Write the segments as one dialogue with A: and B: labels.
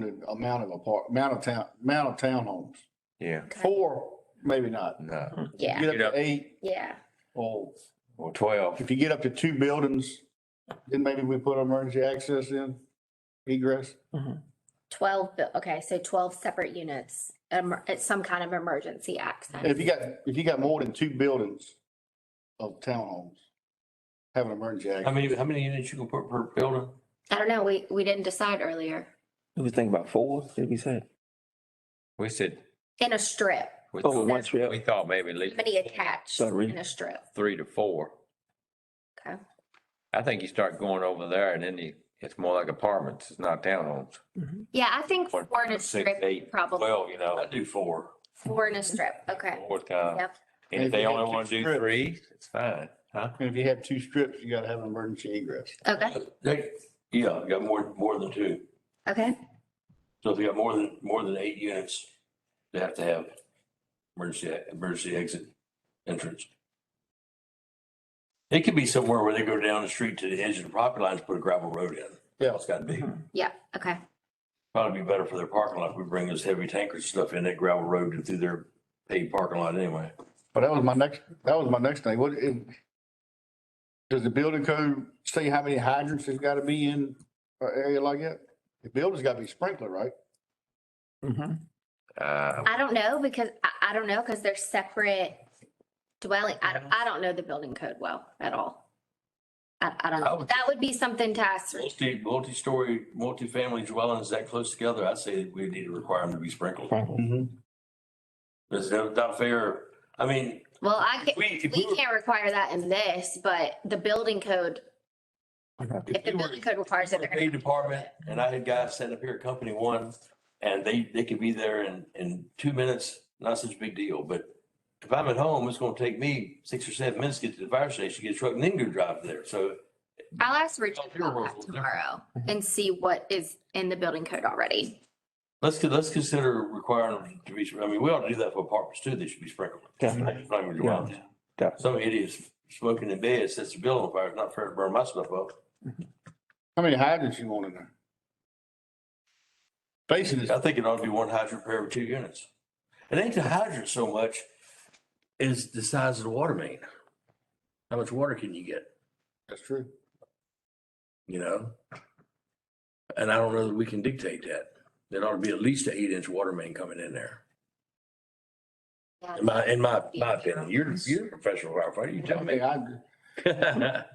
A: the amount of apart, amount of town, amount of townhomes.
B: Yeah,
C: Okay.
A: Four, maybe not.
D: Hmm.
B: no,
C: Yeah,
A: Get
B: Yeah.
A: up to eight,
C: yeah,
A: or
B: or twelve.
A: if you get up to two buildings, then maybe we put emergency access in, egress.
C: twelve, bu- okay, so twelve separate units, um, it's some kind of emergency
A: And if
C: access.
A: you got, if you got more than two buildings of townhomes, have an emergency
D: How
A: access.
D: many, how many units you can put per building?
C: I don't know, we, we didn't decide earlier,
E: We was thinking about four, did we say?
B: We said,
C: in a strip,
B: we
E: Oh,
B: thought,
E: one strip.
B: we thought maybe at least
C: many attached
E: Sorry.
C: in a strip,
B: three to four.
C: okay?
B: I think you start going over there and then you, it's more like apartments, it's not townhomes.
C: Yeah, I think
B: One,
C: four in a
B: Six,
C: strip,
B: eight,
C: probably,
B: twelve, you know,
D: I do four.
C: four in a strip, okay,
B: four times.
C: yep,
B: And
A: Maybe
B: if they
A: have
B: only
A: two
B: want to do
A: strips.
B: three, it's fine, huh?
A: And if you have two strips, you gotta have an emergency egress.
C: okay,
D: They, yeah, got more, more than two.
C: okay,
D: So if you got more than, more than eight units, they have to have emergency, emergency exit entrance. It could be somewhere where they go down the street to the edge of the property lines, put a gravel road in.
A: Yeah.
D: It's gotta be.
C: yeah, okay,
D: Probably be better for their parking lot. if We bring this heavy tanker stuff in that gravel road and through their paved parking lot anyway.
A: But Oh, that was my next, that was my next thing. What, if, does the building code say how many hydrants has gotta be in an area like that? The building's gotta be sprinkler, right?
B: Uh,
C: I don't know, because, I, I don't know, because they're separate dwelling, I, don't- I don't know the building code well at all. I, I don't
D: I
C: know,
D: would-
C: that would be something to ask
D: Multi, multi-story, multi-family dwellings that close together, I'd say we need to require them to be sprinkled.
E: Franklin.
D: That's not not fair. I mean,
C: Well, I
D: if
C: can,
D: we, if we
C: we
D: were,
C: can't require that in this, but the building code, if
D: if
C: the
D: we
C: building
D: were
C: code requires it,
D: a
C: they're
D: paid
C: gonna.
D: department and I had guys set up here at company one and they, they could be there in, in two minutes, not such a big deal, but if I'm at home, it's gonna take me six or seven minutes to get to the fire station, get a truck and then go drive there. So
C: I'll ask Richard
D: Your
C: about
D: rules
C: that
D: will
C: tomorrow
D: Mm-hmm.
C: and see what is in the building code already.
D: let's, con- let's consider requiring them to be, I mean, we ought to do that for apartments too. They should be sprinkled.
E: Definitely.
D: Not even dwellings.
E: Definitely.
D: Some idiots smoking in bed sets the building on fire. It's not fair to burn my stuff up.
A: How many hydrants you want in there? Basically,
D: I think it ought to be one hydrant per every two units. It ain't the hydrant so much is the size of the water main. How much water can you get,
A: that's true.
D: you know? And I don't know that we can dictate that. There ought to be at least an eight inch water main coming in there.
C: Yeah.
D: In my, in my, my opinion, you're, you're a professional firefighter, you
A: How
D: tell
A: many
D: me.
A: hydrants?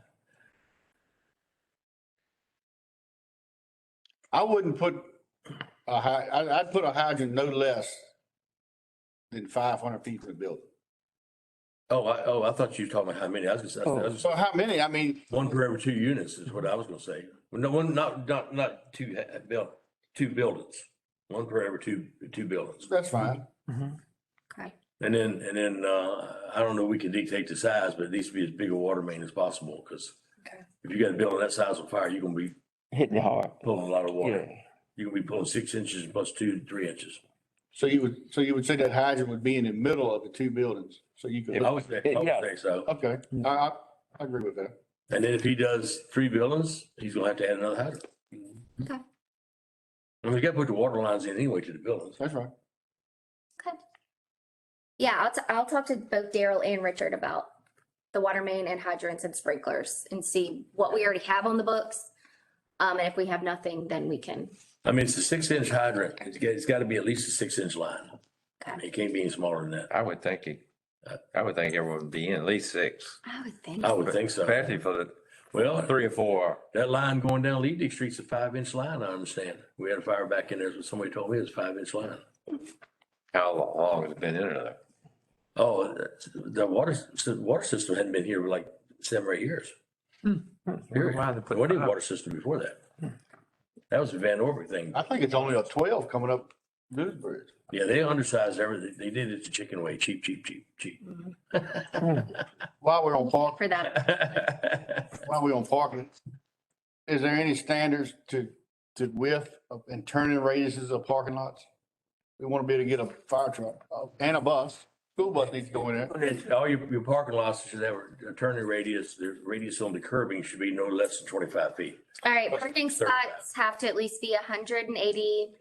A: I wouldn't put a hy, I, I'd put a hydrant no less than five hundred feet from the building.
D: Oh, I, oh, I thought you were talking about how many. I was just, I was,
A: So how many? I mean,
D: one per every two units is what I was gonna say. No, one, not, not, not two, uh, buil- two buildings. One per every two, two buildings.
A: that's fine.
D: Mm-hmm.
C: Okay,
D: And then, and then, uh, I don't know, we can dictate the size, but it needs to be as big a water main as possible, because
C: Okay.
D: if you got a building that size on fire, you're gonna be
E: Hitting it hard.
D: pulling a lot of
E: Yeah.
D: water. You're gonna be pulling six inches plus two, three inches.
A: So you would, so you would say that hydrant would be in the middle of the two buildings, so you could.
D: I would say, I
E: Yeah.
D: would say so.
A: Okay, I, I, I agree with that.
D: And then if he does three buildings, he's gonna have to add another hydrant.
C: Okay.
D: I mean, you gotta put the water lines in anyway to the buildings.
A: That's right.
C: okay. Yeah, I'll, t- I'll talk to both Daryl and Richard about the water main and hydrants and sprinklers and see what we already have on the books. Um, and if we have nothing, then we can,
D: I mean, it's a six inch hydrant. It's got, it's gotta be at least a six inch line. I mean,
C: okay,
D: It can't be any smaller than that.
B: I would think it, I would think everyone would be in at least six.
C: I would think.
D: I would think so.
B: Especially for the
D: Well,
B: three or four,
D: That line going down Leedick Street's a five inch line, I understand. We had a fire back in there, so somebody told me it was five inch line.
B: how long has it been in there?
D: Oh, that's- the water, the water system hadn't been here for like seven or eight years. Period. There wasn't a water system before that. That was a Van Orvy thing.
A: I think it's only a twelve coming up Dewsbury.
D: Yeah, they undersized everything. They did it the chicken way, cheap, cheap, cheap, cheap.
A: While we're on park,
C: For that,
A: while we're on parking, is there any standards to, to width of- and turning radiuses of parking lots? We want to be able to get a fire truck uh, and a bus, school bus needs to go in there.
D: All your, your parking lots should have a turning radius, the radius on the curbing should be no less than twenty-five feet.
C: all right,
D: What's
C: parking
D: third
C: spots have to at least be hundred and eighty